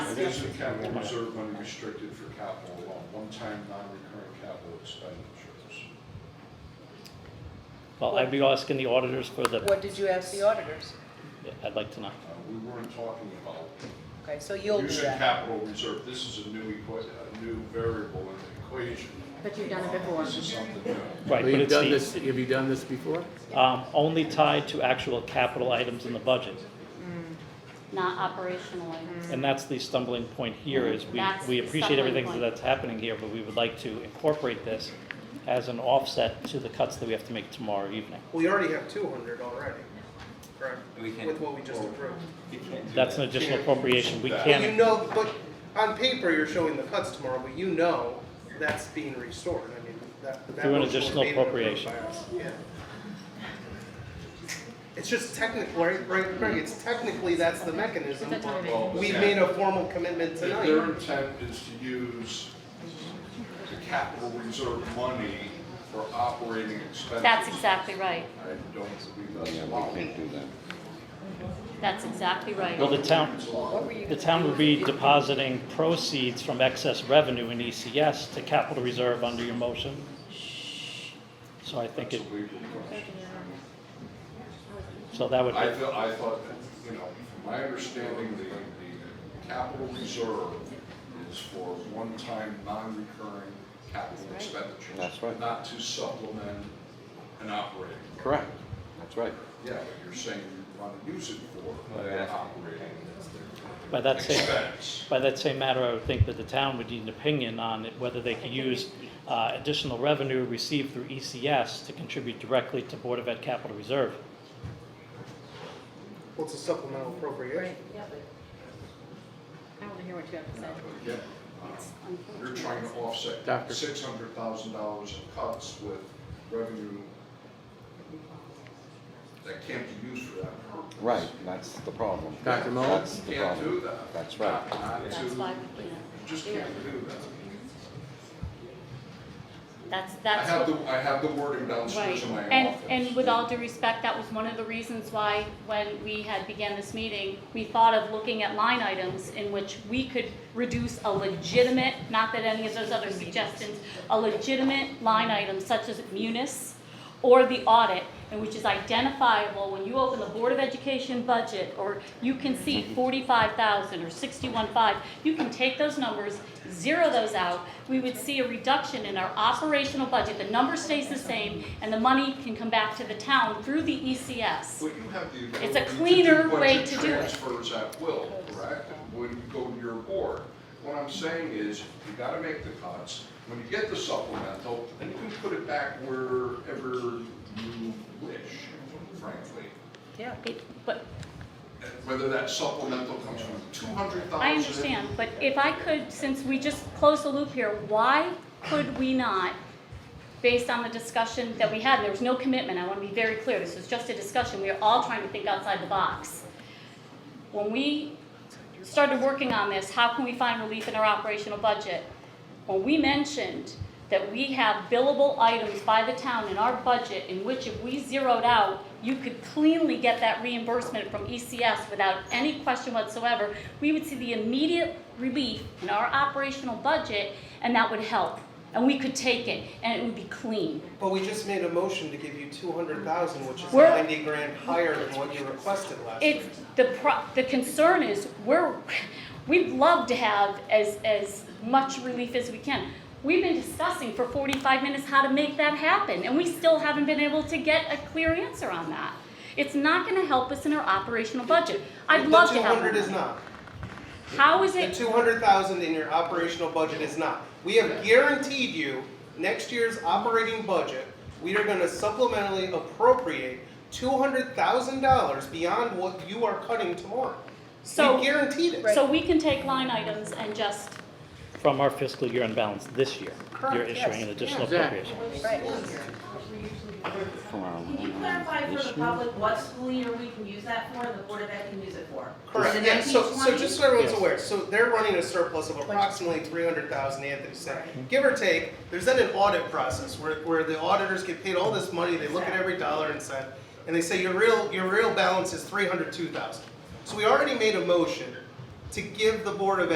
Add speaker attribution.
Speaker 1: is in capital reserve money restricted for capital, uh, one-time, non-recurring capital expenditures.
Speaker 2: Well, I'd be asking the auditors for the,
Speaker 3: What did you ask the auditors?
Speaker 2: I'd like to know.
Speaker 1: Uh, We weren't talking about
Speaker 3: Okay, so you'll do
Speaker 1: using
Speaker 3: that.
Speaker 1: capital reserve. This is a new equa, a new variable in the equation.
Speaker 4: But you've done it before.
Speaker 1: This is something new.
Speaker 2: Right, but
Speaker 5: Have you done
Speaker 2: it's
Speaker 5: this,
Speaker 2: the,
Speaker 5: have you done this before?
Speaker 2: um, only tied to actual capital items in the budget.
Speaker 4: Not operationally.
Speaker 2: And that's the stumbling point here is we,
Speaker 4: That's
Speaker 2: we
Speaker 4: the
Speaker 2: appreciate
Speaker 4: stumbling
Speaker 2: everything
Speaker 4: point.
Speaker 2: that's happening here, but we would like to incorporate this as an offset to the cuts that we have to make tomorrow evening.
Speaker 6: We already have two hundred already, correct?
Speaker 7: We can-
Speaker 6: With what we just approved.
Speaker 7: You can't do
Speaker 2: That's an
Speaker 7: that.
Speaker 2: additional appropriation. We
Speaker 6: You
Speaker 2: can't,
Speaker 6: know, but on paper, you're showing the cuts tomorrow, but you know that's being restored. I mean, that, that.
Speaker 2: Through an
Speaker 6: motion was
Speaker 2: additional
Speaker 6: made and approved
Speaker 2: appropriation.
Speaker 6: by us. Yeah. It's just technical, right, right, Greg, it's technically, that's the mechanism.
Speaker 4: It's a timing.
Speaker 1: Well,
Speaker 6: We
Speaker 1: yeah.
Speaker 6: made a formal commitment
Speaker 1: If their
Speaker 6: tonight.
Speaker 1: intent is to use the capital reserve money for operating expenses.
Speaker 4: That's exactly right.
Speaker 1: I don't believe that's allowed.
Speaker 4: That's exactly right.
Speaker 2: well, the town,
Speaker 1: It's allowed.
Speaker 2: the town would be depositing proceeds from excess revenue in ECS to capital reserve under your motion. So I think
Speaker 1: That's a
Speaker 2: it,
Speaker 1: legal question.
Speaker 2: so that would,
Speaker 1: I thought, I thought, that, you know, from my understanding, the, the capital reserve is for one-time, non-recurring capital expenditures.
Speaker 8: That's right.
Speaker 1: Not to supplement an operating.
Speaker 8: Correct, that's right.
Speaker 1: Yeah, but you're saying you want to use it for an operating
Speaker 2: by that same,
Speaker 1: expense.
Speaker 2: By that same matter, I would think that the town would need an opinion on it, whether they could use uh, additional revenue received through ECS to contribute directly to Board of Ed capital reserve.
Speaker 6: What's a supplemental appropriation?
Speaker 4: I want to hear what you have to say.
Speaker 1: Again, um, You're trying to offset
Speaker 5: Doctor.
Speaker 1: six hundred thousand dollars in cuts with revenue that can't be used for that purpose.
Speaker 8: Right, that's the problem.
Speaker 5: Dr. Mullin?
Speaker 8: That's the
Speaker 1: Can't do
Speaker 8: problem.
Speaker 1: that.
Speaker 8: That's
Speaker 1: Not
Speaker 8: right.
Speaker 1: to-
Speaker 4: That's why we can't.
Speaker 1: Just can't do that.
Speaker 4: That's,
Speaker 1: I
Speaker 4: that's.
Speaker 1: have
Speaker 4: what-
Speaker 1: the, I have the wording
Speaker 4: Right,
Speaker 1: downstairs in my office.
Speaker 4: and, and with all due respect, that was one of the reasons why, when we had began this meeting, we thought of looking at line items in which we could reduce a legitimate, not that any of those other suggestions, a legitimate line item such as munis or the audit, and which is identifiable when you open the Board of Education budget, or you can see forty-five thousand or sixty-one five, you can take those numbers, zero those out, we would see a reduction in our operational budget, the number stays the same, and the money can come back to the town through the E ECS.
Speaker 1: Well, you have the
Speaker 4: It's a
Speaker 1: ability to do
Speaker 4: cleaner way
Speaker 1: budget
Speaker 4: to do it.
Speaker 1: Transfers at will, correct, when you go to your board. What I'm saying is, you gotta make the cuts, when you get the supplemental, then you can put it back wherever you wish, frankly.
Speaker 3: Yeah.
Speaker 4: It- But,
Speaker 1: And Whether that supplemental comes from two hundred thousand.
Speaker 4: I understand, but if I could, since we just closed the loop here, why could we not, based on the discussion that we had, and there was no commitment, I want to be very clear, this was just a discussion, we are all trying to think outside the box. When we started working on this, how can we find relief in our operational budget? When we mentioned that we have billable items by the town in our budget in which if we zeroed out, you could cleanly get that reimbursement from ECS without any question whatsoever, we would see the immediate relief in our operational budget and that would help. And we could take it and it would be clean.
Speaker 6: But we just made a motion to give you two hundred thousand, which is
Speaker 4: We're-
Speaker 6: ninety grand higher than what you requested last week.
Speaker 4: It's, the pro, the concern is, we're, we'd love to have as, as much relief as we can. We've been discussing for forty-five minutes how to make that happen, and we still haven't been able to get a clear answer on that. It's not gonna help us in our operational budget. I'd love to have.
Speaker 6: The two hundred is not.
Speaker 4: How is
Speaker 6: The
Speaker 4: it,
Speaker 6: two hundred thousand in your operational budget is not. We have guaranteed you, next year's operating budget, we are gonna supplementally appropriate two hundred thousand dollars beyond what you are cutting tomorrow.
Speaker 4: So-
Speaker 6: We guaranteed it.
Speaker 4: so we can take line items and just,
Speaker 2: From our fiscal year imbalance this year, you're
Speaker 3: Correct,
Speaker 2: issuing
Speaker 3: yes.
Speaker 2: an additional
Speaker 5: Exactly.
Speaker 2: appropriation.
Speaker 3: Right.
Speaker 8: From our
Speaker 9: Can you clarify for the public what school year we can use that for and the Board of Ed can use it for?
Speaker 6: Correct,
Speaker 9: Is it
Speaker 6: and so, so
Speaker 9: 1920?
Speaker 6: just so everyone's
Speaker 2: Yes.
Speaker 6: aware, so they're running a surplus of approximately three hundred thousand, Anthony said. Give or take, there's then an audit process where, where the auditors get paid all this money, they look at every dollar and cent, and they say, your real, your real balance is three hundred two thousand. So we already made a motion to give the Board of